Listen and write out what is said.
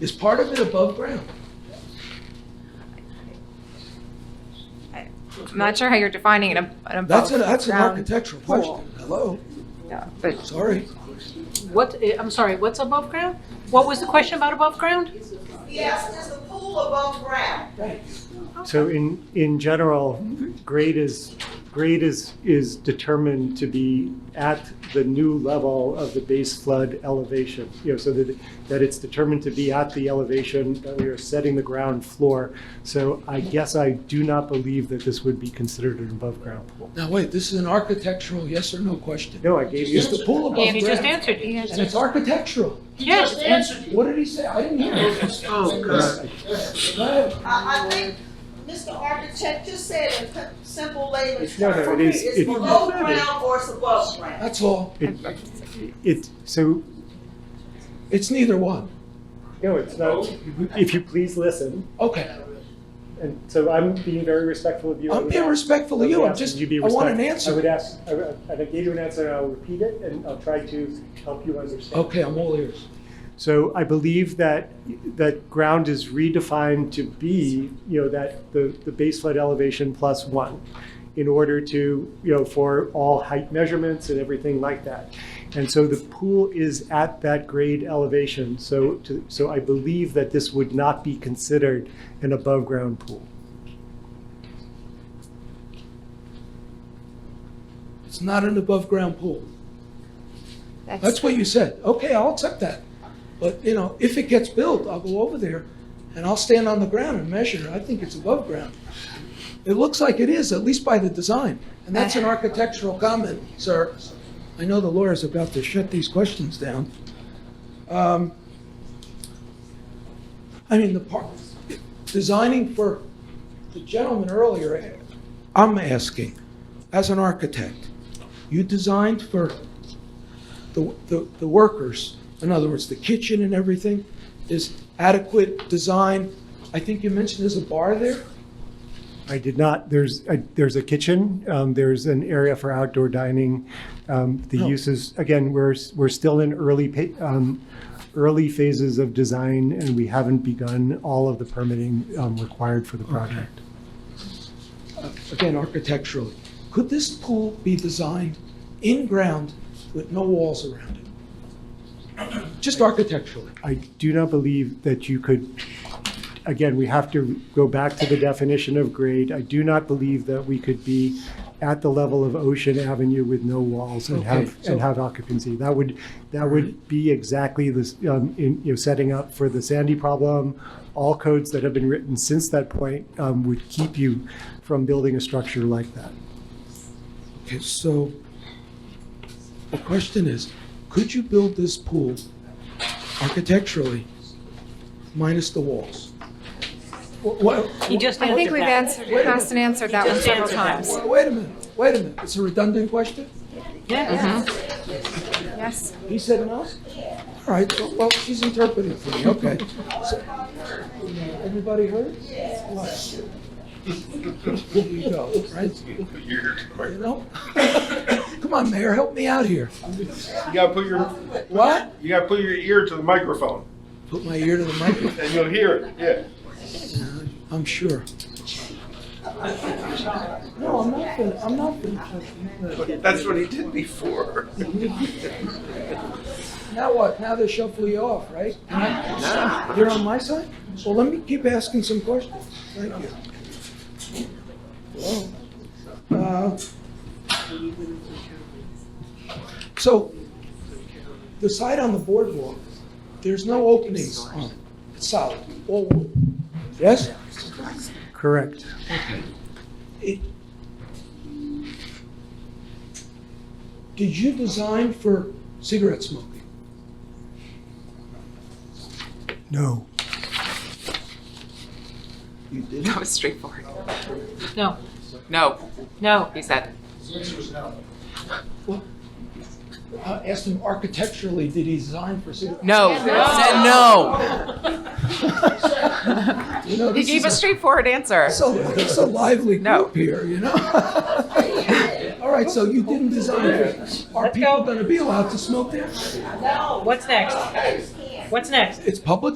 Is part of it above ground? I'm not sure how you're defining an ab- an That's an, that's an above-ground architectural pool. question. Hello, Yeah, But sorry. What, eh, I'm sorry, what's above ground? What was the question about above ground? Yes, is the pool above ground? So in, in general, grade is, grade is, is determined to be at the new level of the base flood elevation. You know, so that, that it's determined to be at the elevation that we are setting the ground floor. So I guess I do not believe that this would be considered an above-ground pool. Now, wait, this is an architectural yes or no question. No, I gave you. Is the pool above Andy just ground? answered you. And it's architectural. Yes, and- What did he say? I didn't hear him. oh, God. Go ahead. I, I think Mr. Architect just said in p- simple language, No, no, it is- it's it- below ground or it's above ground. That's all. It, it, so It's neither one. No, it's not. If you please listen, Okay. and so I'm being very respectful of you. I I'm would being ask- respectful I of would you. I'm ask just, you be I want an respectful. I would answer. ask, I would- and I gave you an answer, and I'll repeat it, and I'll try to help you understand. Okay, I'm all ears. So I believe that, that ground is redefined to be, you know, that the, the base flood elevation plus one in order to, you know, for all height measurements and everything like that. And so the pool is at that grade elevation. So, to, so I believe that this would not be considered an above-ground pool. It's not an above-ground pool. that's, That's what you said. Okay, I'll accept that. But, you know, if it gets built, I'll go over there and I'll stand on the ground and measure. I think it's above ground. It looks like it is, at least by the design. And that's an architectural comment, sir. I know the lawyer's about to shut these questions down. Um, I mean, the part, designing for the gentleman earlier, I'm asking, as an architect, you designed for the, the, the workers, in other words, the kitchen and everything, is adequate design. I think you mentioned there's a bar there. I did not, there's, a- there's a kitchen, um, there's an area for outdoor dining. Um, The No. uses, again, we're, s- we're still in early, pa- um, early phases of design, and we haven't begun all of the permitting um, required for the project. uh, Again, architecturally, could this pool be designed in ground with no walls around it? Just architecturally. I do not believe that you could, again, we have to go back to the definition of grade. I do not believe that we could be at the level of Ocean Avenue with no walls and Okay, have, so- and have occupancy. That would, that would be exactly this, um, in, you know, setting up for the Sandy problem. All codes that have been written since that point, um, would keep you from building a structure like that. Okay, so the question is, could you build this pool architecturally minus the walls? Wha- wha- He just I think answered we've that. answered, Hassan answered that one just several answered that times. wha- Wait a minute, wait a minute. It's a redundant question? Yeah. Yes, He said no? All right, so- well, she's interpreting for me, okay. So- Everybody heard? Yes. There you go, right? You know? Come on, Mayor, help me out here. You gotta put your What? you gotta put your ear to the microphone Put my ear to the microphone, and you'll hear it. Yeah. I'm sure. No, I'm not gonna, I'm not gonna. That's what he did before. Now what? Now they shuffle you off, right? You're on my side? Well, let me keep asking some questions. Thank you. Hello? Uh, So, the side on the boardwalk, there's no openings on it. It's solid, all wood. Yes? Correct. It- Did you design for cigarette smoking? No. That was straightforward. No, No, no. he said. I asked him architecturally, did he design for cigarettes? No. No. No. You know, He this gave a is straightforward answer. a, so, it's a lively No. group here, you know? All right, so you didn't design it. Are people going to be allowed to smoke there? What's next? What's next? It's public